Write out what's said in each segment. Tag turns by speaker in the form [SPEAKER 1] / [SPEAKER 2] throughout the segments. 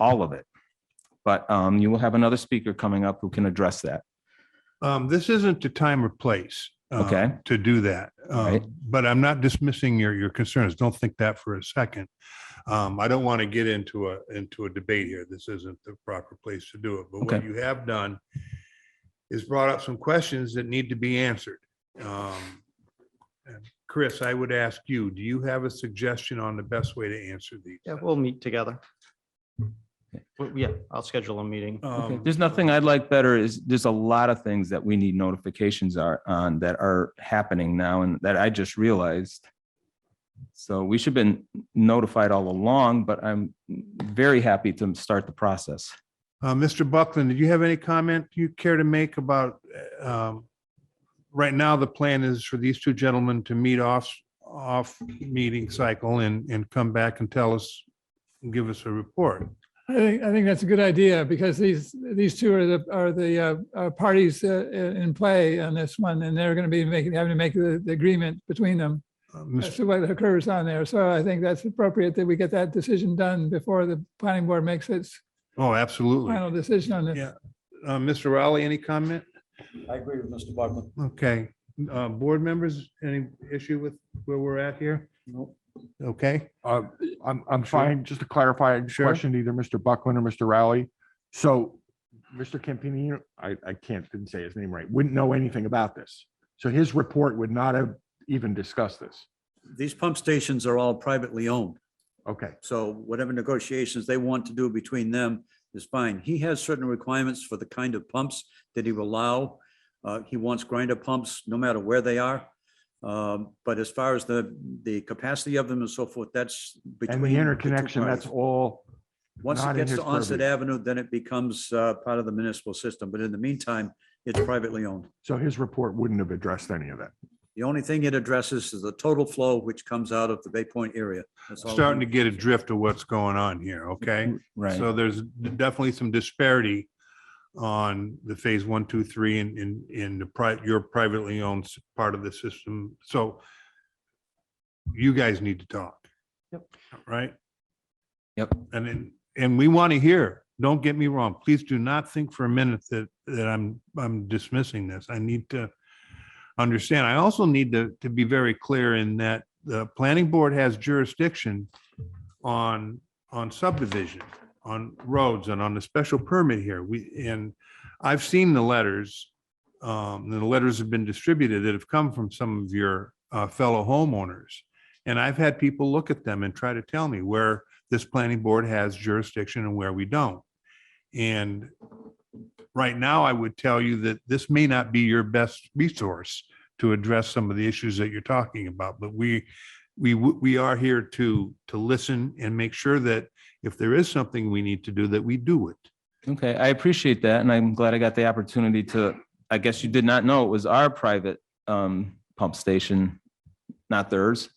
[SPEAKER 1] all of it. But um, you will have another speaker coming up who can address that.
[SPEAKER 2] Um, this isn't the time or place. uh,
[SPEAKER 1] Okay.
[SPEAKER 2] To do that. Um,
[SPEAKER 1] Right.
[SPEAKER 2] But I'm not dismissing your, your concerns. Don't think that for a second. Um, I don't want to get into a, into a debate here. This isn't the proper place to do it. But what
[SPEAKER 1] Okay.
[SPEAKER 2] you have done is brought up some questions that need to be answered. Um, and Chris, I would ask you, do you have a suggestion on the best way to answer these?
[SPEAKER 3] Yeah, we'll meet together. Well, Yeah, I'll schedule a meeting.
[SPEAKER 1] Okay,
[SPEAKER 2] Um,
[SPEAKER 1] There's nothing I'd like better is, there's a lot of things that we need notifications are on that are happening now and that I just realized. So we should have been notified all along, but I'm very happy to start the process.
[SPEAKER 2] Uh, Mr. Buckland, did you have any comment you care to make about, um, right now, the plan is for these two gentlemen to meet off, off meeting cycle and, and come back and tell us, give us a report.
[SPEAKER 4] I think, I think that's a good idea because these, these two are the, are the uh, uh, parties uh, i- in play on this one and they're going to be making, having to make the the agreement between them
[SPEAKER 2] Uh,
[SPEAKER 4] as
[SPEAKER 2] Mr.
[SPEAKER 4] to what occurs on there. So I think that's appropriate that we get that decision done before the planning board makes its
[SPEAKER 2] Oh, absolutely.
[SPEAKER 4] final decision on this.
[SPEAKER 2] Yeah. Uh, Mr. Rowley, any comment?
[SPEAKER 5] I agree with Mr. Buckland.
[SPEAKER 2] Okay. Uh, board members, any issue with where we're at here? Okay.
[SPEAKER 6] Uh, I'm, I'm
[SPEAKER 2] Sure.
[SPEAKER 6] fine. Just to clarify, I
[SPEAKER 2] Sure.
[SPEAKER 6] questioned either Mr. Buckland or Mr. Rowley. So Mr. Campini, I, I can't, didn't say his name right, wouldn't know anything about this. So his report would not have even discussed this.
[SPEAKER 5] These pump stations are all privately owned,
[SPEAKER 6] Okay,
[SPEAKER 5] so whatever negotiations they want to do between them is fine. He has certain requirements for the kind of pumps that he will allow. Uh, He wants grinder pumps, no matter where they are. Um, But as far as the, the capacity of them and so forth, that's between.
[SPEAKER 6] and the
[SPEAKER 5] two
[SPEAKER 6] interconnection,
[SPEAKER 5] parties.
[SPEAKER 6] that's all.
[SPEAKER 5] Once
[SPEAKER 6] not
[SPEAKER 5] it
[SPEAKER 6] in
[SPEAKER 5] gets
[SPEAKER 6] his
[SPEAKER 5] to Onset
[SPEAKER 6] purview.
[SPEAKER 5] Avenue, then it becomes uh, part of the municipal system, but in the meantime, it's privately owned.
[SPEAKER 6] So his report wouldn't have addressed any of that.
[SPEAKER 5] The only thing it addresses is the total flow which comes out of the Bay Point area. That's all.
[SPEAKER 2] Starting to get a drift of what's going on here, okay? So there's definitely some disparity on the phase one, two, three, and in, in the pri, your privately owned s- part of the system. So you guys need to talk.
[SPEAKER 3] Yep.
[SPEAKER 2] Right?
[SPEAKER 1] Yep.
[SPEAKER 2] And then, and we want to hear, don't get me wrong, please do not think for a minute that, that I'm, I'm dismissing this. I need to understand. I also need to, to be very clear in that the planning board has jurisdiction on, on subdivision, on roads and on the special permit here. We, and I've seen the letters, um, the letters have been distributed that have come from some of your, uh, fellow homeowners. And I've had people look at them and try to tell me where this planning board has jurisdiction and where we don't. And right now, I would tell you that this may not be your best resource to address some of the issues that you're talking about, but we, we, w- we are here to, to listen and make sure that if there is something we need to do, that we do it.
[SPEAKER 1] Okay, I appreciate that, and I'm glad I got the opportunity to, I guess you did not know it was our private um pump station, not theirs.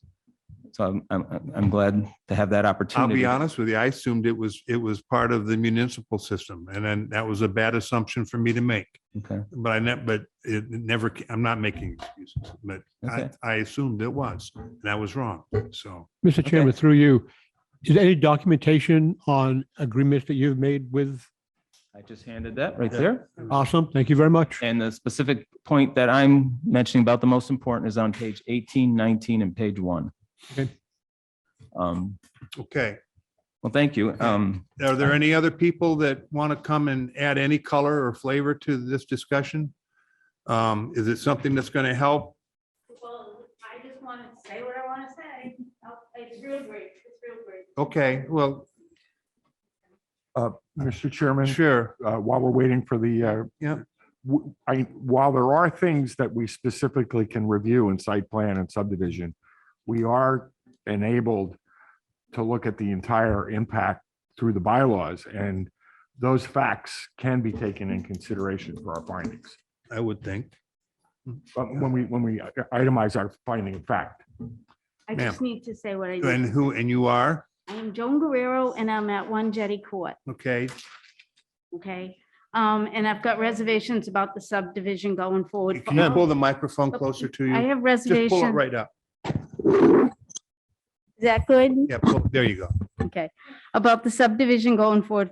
[SPEAKER 1] So I'm I'm I'm glad to have that
[SPEAKER 2] I'll
[SPEAKER 1] opportunity.
[SPEAKER 2] be honest with you, I assumed it was, it was part of the municipal system, and then that was a bad assumption for me to make.
[SPEAKER 1] Okay,
[SPEAKER 2] But I never, but it never, ca- I'm not making excuses, but I,
[SPEAKER 1] Okay.
[SPEAKER 2] I assumed it was, and I was wrong, so.
[SPEAKER 7] Mr.
[SPEAKER 1] Okay.
[SPEAKER 7] Chairman, through you, is there any documentation on agreements that you've made with?
[SPEAKER 1] I just handed that right there.
[SPEAKER 7] Awesome. Thank you very much.
[SPEAKER 1] And the specific point that I'm mentioning about the most important is on page 18, 19, and page one.
[SPEAKER 7] Okay.
[SPEAKER 1] Um,
[SPEAKER 2] Okay,
[SPEAKER 1] well, thank you. Um,
[SPEAKER 2] are there any other people that want to come and add any color or flavor to this discussion? Um, is it something that's going to help?
[SPEAKER 8] Well, I just want to say what I want to say. Oh, It's real great. It's real great.
[SPEAKER 2] Okay, well,
[SPEAKER 6] Mr. Chairman.
[SPEAKER 2] sure,
[SPEAKER 6] uh, while we're waiting for the, uh,
[SPEAKER 2] Yeah.
[SPEAKER 6] w- I, while there are things that we specifically can review in site plan and subdivision, we are enabled to look at the entire impact through the bylaws, and those facts can be taken in consideration for our findings.
[SPEAKER 2] I would think.
[SPEAKER 6] But when we, when we itemize our finding of fact,
[SPEAKER 8] I
[SPEAKER 2] Ma'am.
[SPEAKER 8] just need to say what I
[SPEAKER 2] And
[SPEAKER 8] need.
[SPEAKER 2] who, and you are?
[SPEAKER 8] I am Joan Guerrero and I'm at One Jetty Court,
[SPEAKER 2] Okay,
[SPEAKER 8] okay? Um, and I've got reservations about the subdivision going forward. for
[SPEAKER 2] can you
[SPEAKER 8] all-
[SPEAKER 2] pull the microphone closer to
[SPEAKER 8] I
[SPEAKER 2] you?
[SPEAKER 8] have
[SPEAKER 2] Just pull it
[SPEAKER 8] reservations.
[SPEAKER 2] right up.
[SPEAKER 8] Is that good?
[SPEAKER 2] Yeah, pull- there you go.
[SPEAKER 8] Okay. About the subdivision going forward